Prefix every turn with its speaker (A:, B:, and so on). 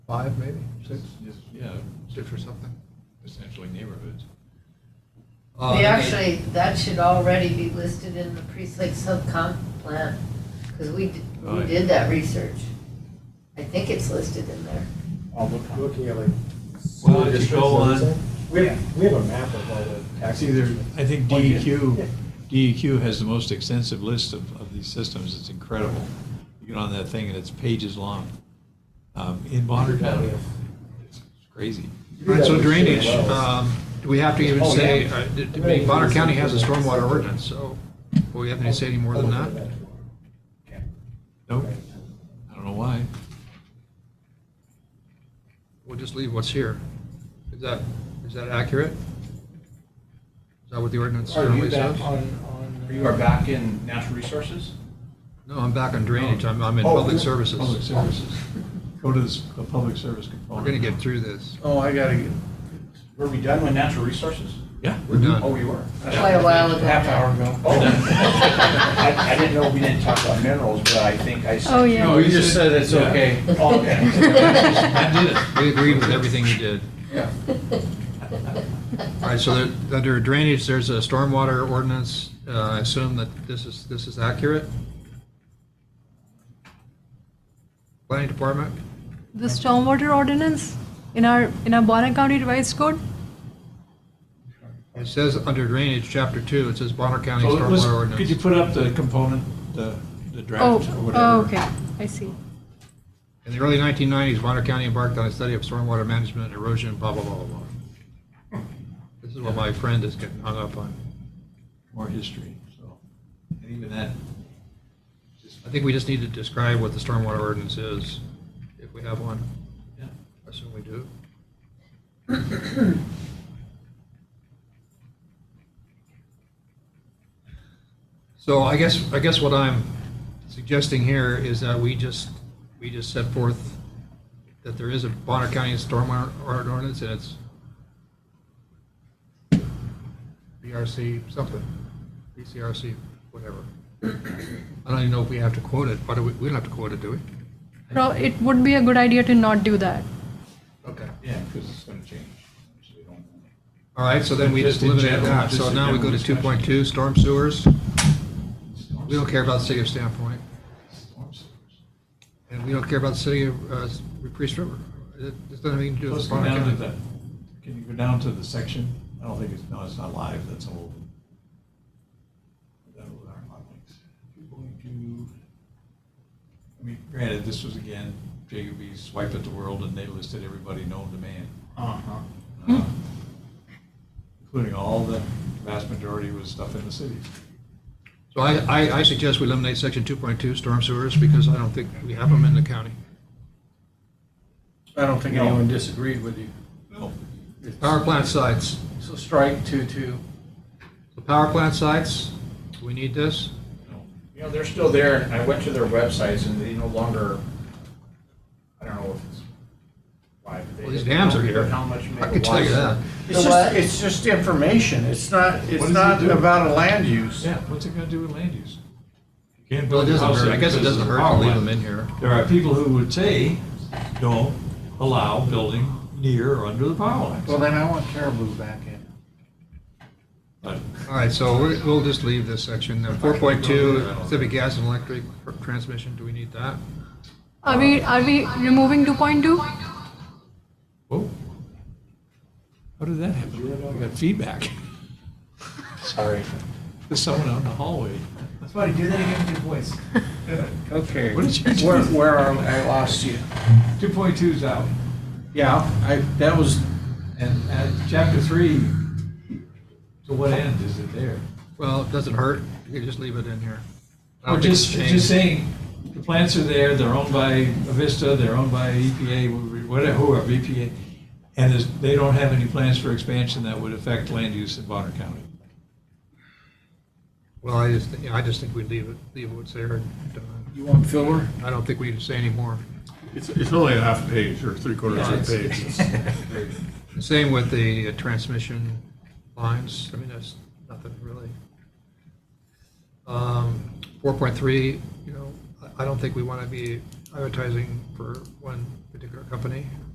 A: five maybe, six,
B: Just, yeah,
A: six or something.
B: essentially neighborhoods.
A: Uh,
C: We actually, that should already be listed in the precinct subcom plan, because we, d- we
B: Right.
C: did that research. I think it's listed in there.
D: I'll look on.
E: Looking at like.
B: Well, just go on.
E: We have, we have a map of all the
B: It's
E: taxes.
B: either, I think
A: E
B: E DEQ,
E: Yeah.
B: DEQ E has the most extensive list of, of these systems, it's incredible. You get on that thing and it's pages long. Um, In Bonner County, it's crazy.
A: All right, so
E: Yeah,
A: drainage,
E: well.
A: um, do we have to even
E: Oh,
A: say,
E: yeah.
A: uh, d- d- Bonner County has a stormwater ordinance, so do we have to say any more than
E: I'll look
A: that?
E: at
D: Okay.
B: Nope, I don't know why.
A: We'll just leave what's here. Is that, is that accurate? Is that what the ordinance
D: Are
A: currently
D: you back
A: says?
D: on, on? uh,
F: You are back in natural resources?
A: No, I'm back on drainage, I'm, I'm in
D: Oh,
A: public
D: you're-
A: services.
B: Public services. Go to the, s- the public service component.
A: We're gonna get through this.
D: Oh, I gotta get.
F: Were we done with natural resources?
B: Yeah.
A: We're done.
F: Oh, we were.
C: Quite a while ago.
D: Half hour ago.
F: Oh. I, I didn't know we didn't talk about minerals, but I think I said.
G: Oh, yeah.
D: No, you just said it's
B: Yeah.
D: okay.
F: Oh,
B: I did it.
A: We agreed with everything you did.
D: Yeah.
A: All right, so there- under drainage, there's a stormwater ordinance. Uh, I assume that this is, this is accurate? Planning Department?
G: The stormwater ordinance in our, in our Bonner County Revised Code?
A: It says under drainage, chapter two, it says Bonner County
B: So it was-
A: Stormwater
B: Could you
A: Ordinance.
B: put up the component, the, the
G: Oh,
B: draft or whatever?
G: oh, okay, I see.
A: In the early 1990s, Bonner County embarked on a study of stormwater management, erosion, blah, blah, blah, blah, blah. This is what my friend is getting hung up on.
B: More history, so, and even that, just,
A: I think we just need to describe what the stormwater ordinance is, if we have one.
B: yeah.
A: I assume we do. So I guess, I guess what I'm suggesting here is that we just, we just set forth that there is a Bonner County stormwater ordinance and it's BRC something, BCRC, whatever. I don't even know if we have to quote it, but we, we don't have to quote it, do we?
G: Pro- It would be a good idea to not do that.
A: Okay.
B: Yeah, because it's going to change. so we don't-
A: All right, so then we just
B: Just in
A: eliminate
B: general,
A: that.
B: just
A: So
B: in
A: now we go
B: general
A: to two point two, storm sewers. We don't care about the city of Standpoint,
B: Storm sewers.
A: and we don't care about the city of, uh, Priest River. It doesn't have anything to do
B: Let's
A: with
B: go
A: Bonner
B: down to the,
A: County.
B: can you go down to the section? I don't think it's, no, it's not live, that's old. That was our hot links. Two point two. I mean, granted, this was again, J.U.B.'s swipe at the world and they listed everybody known to man.
D: Uh-huh.
B: uh, Including all the vast majority was stuff in the cities.
A: So I, I, I suggest we eliminate section two point two, storm sewers, because I don't think we have them in the county.
D: I don't think
F: No.
D: anyone disagreed with you.
B: No.
D: It's-
A: Power plant sites.
D: So strike two, two.
A: The power plant sites, do we need this?
B: No.
F: You know, they're still there, and I went to their websites, and they no longer, I don't know if it's why, but they.
A: Well, these dams are here.
F: How much megawatts.
A: I can tell you that.
D: It's just,
C: what?
D: it's just information. It's not,
B: does
D: it's
B: it
D: not
B: do?
D: about a land use.
B: Yeah, what's it gonna do with land use? You can't
A: Well, it
B: build a
A: doesn't
B: house
A: hurt,
B: there
A: I guess it
B: because
A: doesn't
B: it's a
A: hurt to
B: power
A: leave
B: line.
A: them in here.
B: There are people who would say, don't allow building near or under the power lines.
D: Well, then I want Caribou back in.
B: But
A: All right, so we're- we'll just leave this section. Four point two, Pacific Gas and Electric Transmission, do we need that?
G: Are we, are we removing 2.2?
B: Whoa. How did that happen? We got feedback.
D: Sorry.
B: There's someone out in the hallway.
F: Somebody do that again with your voice.
D: Okay.
B: What did you do?
D: Where, where are, I lost you.
B: Two point two's out.
D: Yeah, I, that was,
B: And, and chapter three, to what end is it there?
A: Well, it doesn't hurt, you can just leave it in here. I don't
B: We're
A: think it's
B: just,
A: changed.
B: just saying, the plants are there, they're owned by Avista, they're owned by E EPA, whatever, whoever, EPA. And there's, they don't have any plans for expansion that would affect land use in Bonner County.
A: Well, I just, yeah, I just think we leave it, leave what's there. and done.
D: you want filler?
A: I don't think we need to say any more.
H: It's, it's only a half page or three quarters of a page.
A: Same with the uh, transmission lines, I mean, that's nothing really. Um, 4.3, you know, I- I don't think we want to be advertising for one particular company?